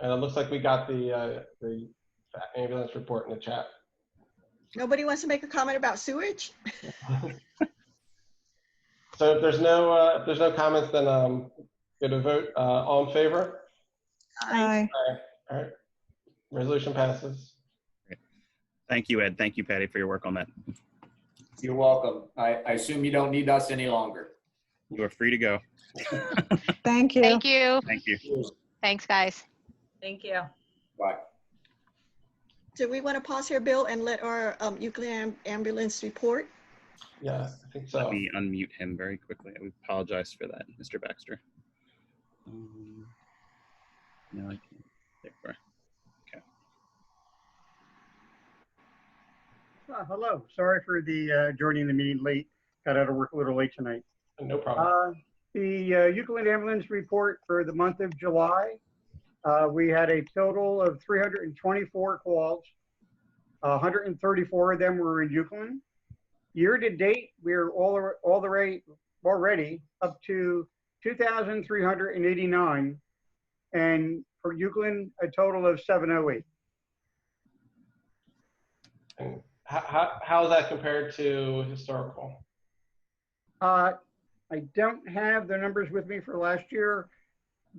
And it looks like we got the, uh, the ambulance report in the chat. Nobody wants to make a comment about sewage? So if there's no, uh, if there's no comments, then, um, get a vote, uh, all in favor? Aye. Resolution passes. Thank you, Ed. Thank you, Patty, for your work on that. You're welcome. I, I assume you don't need us any longer. You are free to go. Thank you. Thank you. Thank you. Thanks, guys. Thank you. Bye. Do we want to pause here, Bill, and let our um, Euclid Am- ambulance report? Yes, I think Let so. me unmute him very quickly. We apologize for that, Mr. Baxter. Um, No, I can't. There we are. Uh, Hello, sorry for the uh, joining the meeting late. Got out of work a little late tonight. No problem. Uh, The uh, Euclid Ambulance Report for the month of July, uh, we had a total of 324 calls. 134 of them were in Euclid. Year-to-date, we're all, all the rate, already up to 2,389. And for Euclid, a total of 708. And How, how, how is that compared to historical? Uh, I don't have the numbers with me for last year.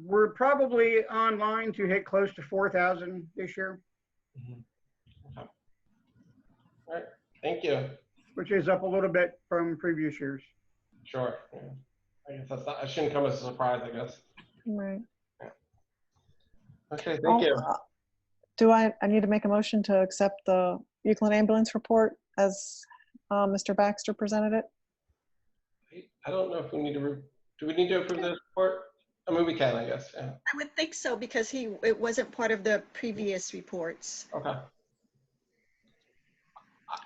We're probably online to hit close to 4,000 this year, Thank you. which is up a little bit from previous years. Sure. yeah. I guess that's not, I shouldn't come as a surprise, I guess. Right. Okay, thank you. Oh, uh, Do I, I need to make a motion to accept the Euclid ambulance report as uh, Mr. Baxter presented it? I don't know if we need to, re- do we need to approve this report? I mean, we can, I guess, yeah. I would think so because he, it wasn't part of the previous reports. Okay. Uh,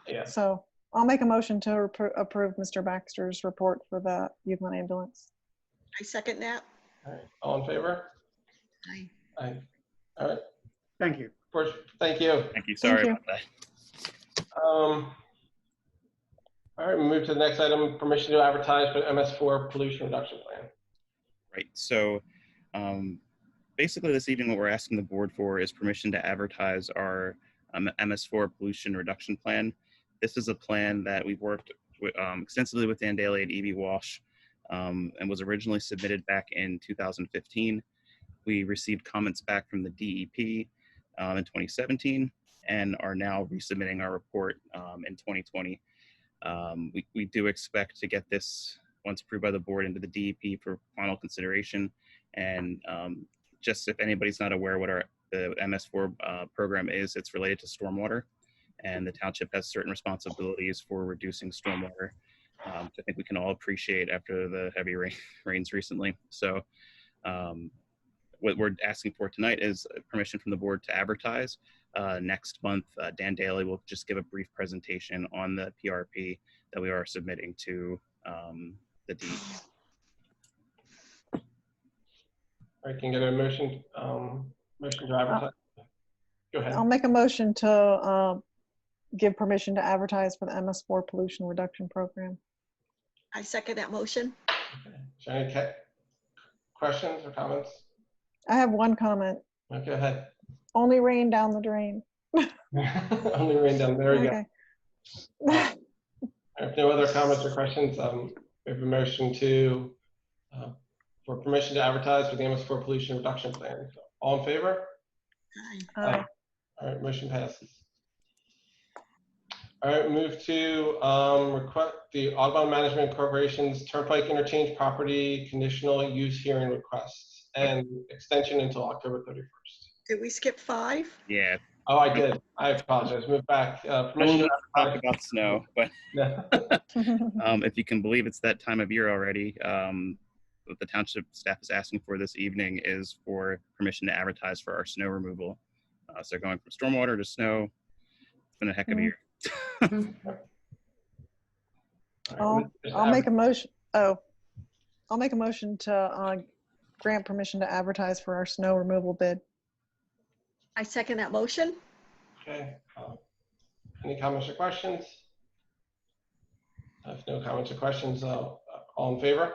Yes, So I'll make a motion to appro- approve Mr. Baxter's report for the Euclid ambulance. I second that. all right. All in favor? Aye. Aye. Thank you. Of course, thank you. Thank you. Thank Sorry you. about that. Um, All right, we move to the next item, permission to advertise for MS4 pollution reduction plan. Right. So um, basically, this evening, what we're asking the board for is permission to advertise our um, MS4 pollution reduction plan. This is a plan that we've worked wi- um, extensively with Dan Daly and E.B. Walsh um, and was originally submitted back in 2015. We received comments back from the DEP um, in 2017 and are now resubmitting our report um, in 2020. Um, we, we do expect to get this once approved by the board into the DEP for final consideration. And um, just if anybody's not aware what our the MS4 uh, program is, it's related to stormwater, and the township has certain responsibilities for reducing stormwater. Um, which I think we can all appreciate after the heavy rain, rains recently. So, um, what we're asking for tonight is permission from the board to advertise. Uh, next month, uh, Dan Daly will just give a brief presentation on the PRP that we are submitting to um, the DEP. All right, can you get a motion, um, motion to advertise? Go ahead. I'll make a motion to uh, give permission to advertise for the MS4 pollution reduction program. I second that motion. Okay. Is there any ca- questions or comments? I have one comment. No, Go ahead. Only rain down the drain. Only rain down, there you go. Okay. If no other comments or questions, um, we have a motion to, uh, for permission to advertise for the MS4 pollution reduction plan. All in favor? Aye. Uh, All right, motion passes. All right, move to, um, request, the Audubon Management Corporation's Turnpike Interchange Property Conditional Use Hearing Request and extension until October 31st. Did we skip five? Yeah, Oh, I did. I apologize. Move back. Uh, permission to talk advertise- about snow, but No. Uh, um, if you can believe it's that time of year already. Um, what the township staff is asking for this evening is for permission to advertise for our snow removal. Uh, so going from stormwater to snow, it's been a heck of a Mhm. year. All right, I'll make a motion, oh, I'll make a motion to uh, grant permission to advertise for our snow removal bid. I second that motion. Okay. um, Any comments or questions? If no comments or questions, uh, all in favor?